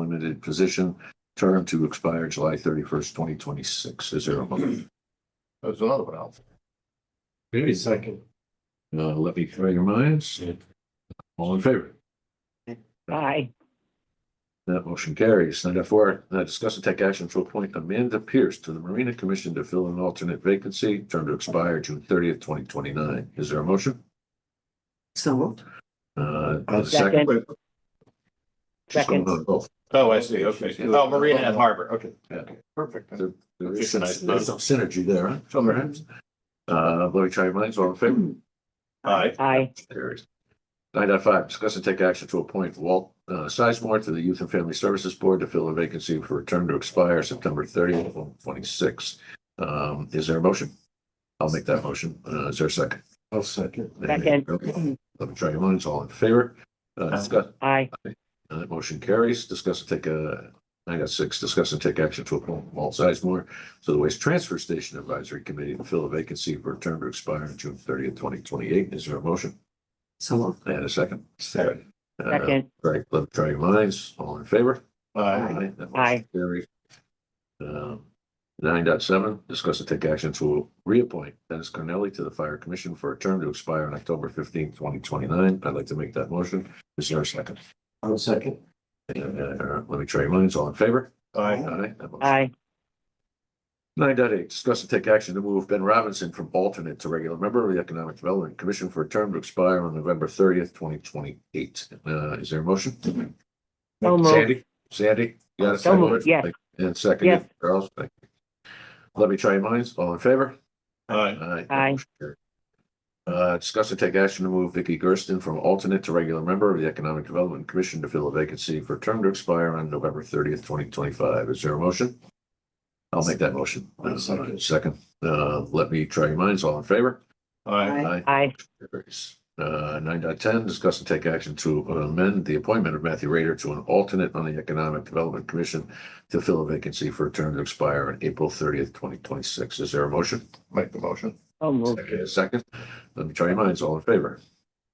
limited position, term to expire July thirty-first, twenty twenty-six. Is there a motion? There's another one out. Okay, Second. Uh, let me try your minds. All in favor? Aye. That motion carries. Item four, uh, discuss and take action to appoint Amanda Pierce to the Marina Commission to fill an alternate vacancy, term to expire June thirtieth, twenty twenty-nine. Is there a motion? So moved. Uh, a Second. second. She's going Second. on both. Oh, I see, okay. Oh, Marina and Harbor, okay. Yeah. Perfect. There is some, there's some synergy there, huh? Some- Perhaps. Uh, let me try your minds. All in favor? Aye. Aye. Carries. Nine dot five, discuss and take action to appoint Walt uh, Sizemore to the Youth and Family Services Board to fill a vacancy for a term to expire September thirtieth, twenty-six. Um, is there a motion? I'll make that motion. Uh, is there a second? I'll second. Second. Let me try your minds. All in favor? Uh, discuss, Aye. uh, that motion carries. Discuss and take a, I got six, discuss and take action to appoint Walt Sizemore to the Waste Transfer Station Advisory Committee to fill a vacancy for a term to expire June thirtieth, twenty twenty-eight. Is there a motion? So moved. And a second? Second. Uh, Second. Right, let me try your minds. All in favor? Aye. That motion Aye. carries. Um, Nine dot seven, discuss and take action to reappoint Dennis Cornelli to the Fire Commission for a term to expire on October fifteenth, twenty twenty-nine. I'd like to make that motion. Is there a second? I'll second. Uh, let me try your minds. All in favor? Aye. that motion Aye. Nine dot eight, discuss and take action to move Ben Robinson from alternate to regular member of the Economic Development Commission for a term to expire on November thirtieth, twenty twenty-eight. Uh, is there a motion? So moved. Sandy, Sandy, you got a So second? moved, yes. And second, Yes. Charles, thank you. Let me try your minds. All in favor? Aye. Aye. Aye. Motion carried. Uh, discuss and take action to move Vicky Gersten from alternate to regular member of the Economic Development Commission to fill a vacancy for a term to expire on November thirtieth, twenty twenty-five. Is there a motion? I'll make that motion. I'll second. Second, uh, let me try your minds. All in favor? Aye. Aye. Aye. Carries. Uh, nine dot ten, discuss and take action to amend the appointment of Matthew Raider to an alternate on the Economic Development Commission to fill a vacancy for a term to expire on April thirtieth, twenty twenty-six. Is there a motion? Make the motion. So moved. Second. a Second, let me try your minds. All in favor?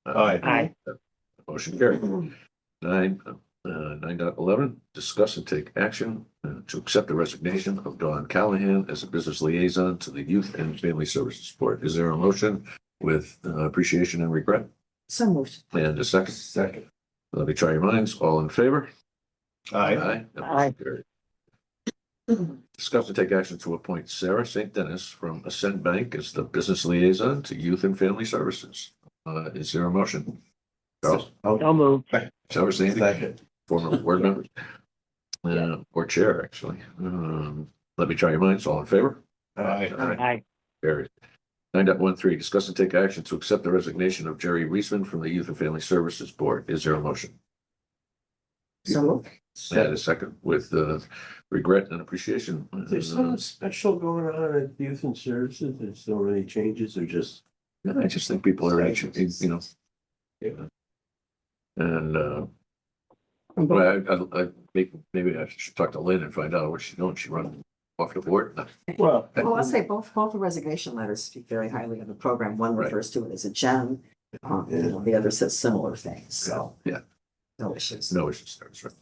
Uh, Aye. Aye. Motion carried. Nine, uh, nine dot eleven, discuss and take action uh, to accept the resignation of Dawn Callahan as a business liaison to the Youth and Family Services Board. Is there a motion with uh, appreciation and regret? So moved. And a second? Second. Let me try your minds. All in favor? Aye. That motion Aye. carried. Discuss and take action to appoint Sarah St. Dennis from Ascend Bank as the business liaison to youth and family services. Uh, is there a motion? Charles, So moved. Sarah St. Second. former board member. Uh, or chair, actually. Um, let me try your minds. All in favor? Aye. Aye. Carried. Nine dot one three, discuss and take action to accept the resignation of Jerry Reisman from the Youth and Family Services Board. Is there a motion? So moved. Had a second with, uh, regret and appreciation. Uh, There's something special going on at Youth and Services, there's so many changes, or just, Yeah, I just think people are anxious, you know. Yeah. And, uh, well, I, I, I, maybe, maybe I should talk to Lynn and find out what she knows. She run off the board. well, Well, I'll say both, both the resignation letters speak very highly of the program. One Right. refers to it as a gem. Um, you know, the other says similar things, so. Yeah. No issues. No issues there, that's right.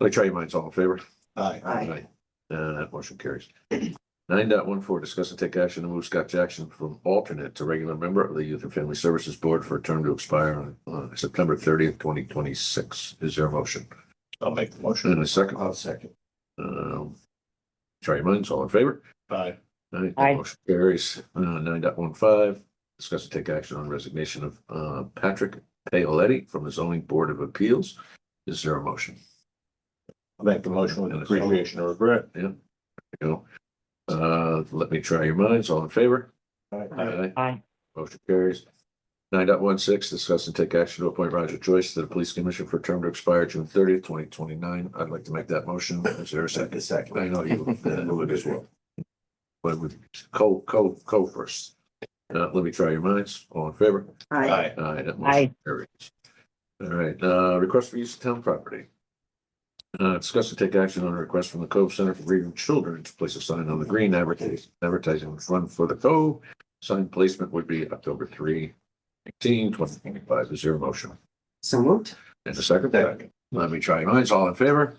Let me try your minds all in favor. Aye. Aye. Uh, that motion carries. Nine dot one four, discuss and take action to move Scott Jackson from alternate to regular member of the Youth and Family Services Board for a term to expire on, uh, September thirtieth, twenty twenty-six. Is there a motion? I'll make the motion. And a second? I'll second. Um, try your minds, all in favor? Aye. Aye. that Aye. Motion carries. Uh, nine dot one five, discuss and take action on resignation of, uh, Patrick Paoletti from the zoning board of appeals. Is there a motion? I'll make the motion with appreciation and regret. You know, uh, let me try your minds, all in favor? Aye. Aye. Motion carries. Nine dot one six, discuss and take action to appoint Roger Joyce to the police commission for a term to expire June thirtieth, twenty twenty-nine. I'd like to make that motion. Is there a second? second. I know you uh, would as well. But with co, co, co first. Uh, let me try your minds. All in favor? Aye. Aye. Aye, that Aye. motion carries. All right, uh, request for use of town property. Uh, discuss and take action on a request from the Cove Center for Grieving Children to place a sign on the green advertising, advertising fund for the Cove. Sign placement would be October three, eighteen, twenty twenty-five. Is there a motion? So moved. And a second? Second. Let me try your minds. All in favor?